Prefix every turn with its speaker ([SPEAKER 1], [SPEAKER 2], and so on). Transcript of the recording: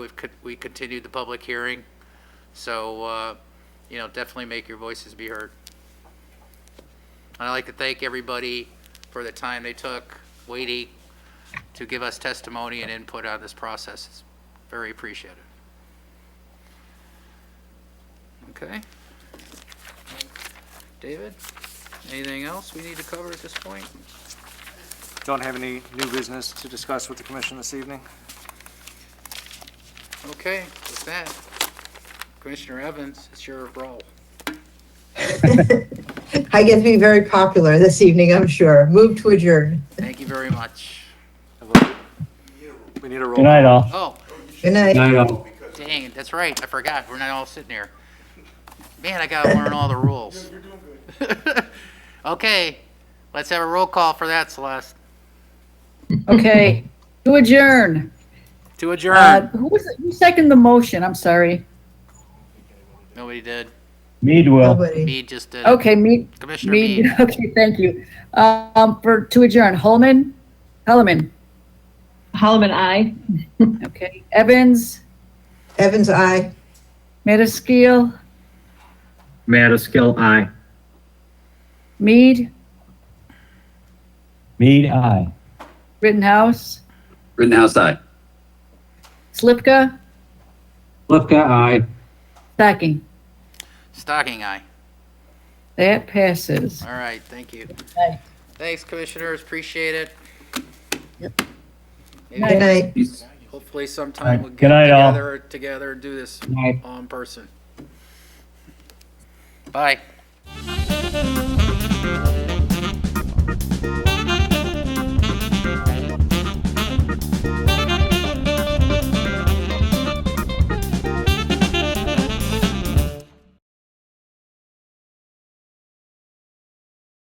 [SPEAKER 1] We've, con- we continued the public hearing, so, uh, you know, definitely make your voices be heard. And I'd like to thank everybody for the time they took waiting to give us testimony and input on this process. It's very appreciated. Okay? David, anything else we need to cover at this point?
[SPEAKER 2] Don't have any new business to discuss with the commission this evening?
[SPEAKER 1] Okay, with that, Commissioner Evans, it's your role.
[SPEAKER 3] I get to be very popular this evening, I'm sure. Move to adjourn.
[SPEAKER 1] Thank you very much.
[SPEAKER 2] We need a roll.
[SPEAKER 4] Good night, all.
[SPEAKER 1] Oh,
[SPEAKER 3] Good night.
[SPEAKER 4] night, all.
[SPEAKER 1] dang, that's right, I forgot, we're not all sitting here. Man, I gotta learn all the rules. Okay, let's have a roll call for that, Celeste.
[SPEAKER 5] Okay, to adjourn.
[SPEAKER 1] To
[SPEAKER 5] Uh,
[SPEAKER 1] adjourn.
[SPEAKER 5] Who was, who seconded the motion? I'm sorry.
[SPEAKER 1] Nobody did.
[SPEAKER 4] Mead will.
[SPEAKER 3] Nobody.
[SPEAKER 1] Mead just
[SPEAKER 6] Uh,
[SPEAKER 1] did.
[SPEAKER 5] Okay, Mead,
[SPEAKER 1] Commissioner
[SPEAKER 5] Mead,
[SPEAKER 1] Mead,
[SPEAKER 5] okay, thank you. Um, for, to adjourn, Holman, Holloman,
[SPEAKER 6] Holloman, aye.
[SPEAKER 5] okay, Evans,
[SPEAKER 3] Evans, aye.
[SPEAKER 5] Metaskill,
[SPEAKER 7] Madaskil, aye.
[SPEAKER 5] Mead,
[SPEAKER 4] Mead, aye.
[SPEAKER 5] Rittenhouse,
[SPEAKER 7] Rittenhouse, aye.
[SPEAKER 5] Slipka,
[SPEAKER 7] Lifka, aye.
[SPEAKER 5] Stocking.
[SPEAKER 1] stocking eye.
[SPEAKER 5] That passes.
[SPEAKER 1] All right, thank you.
[SPEAKER 5] Aye.
[SPEAKER 1] Thanks, commissioners, appreciate it.
[SPEAKER 3] Good
[SPEAKER 1] Maybe
[SPEAKER 3] night.
[SPEAKER 7] Peace.
[SPEAKER 1] Hopefully sometime
[SPEAKER 4] Aye.
[SPEAKER 1] we'll get
[SPEAKER 4] Good night, all.
[SPEAKER 1] together, together and do this
[SPEAKER 7] Aye.
[SPEAKER 1] all in person. Bye.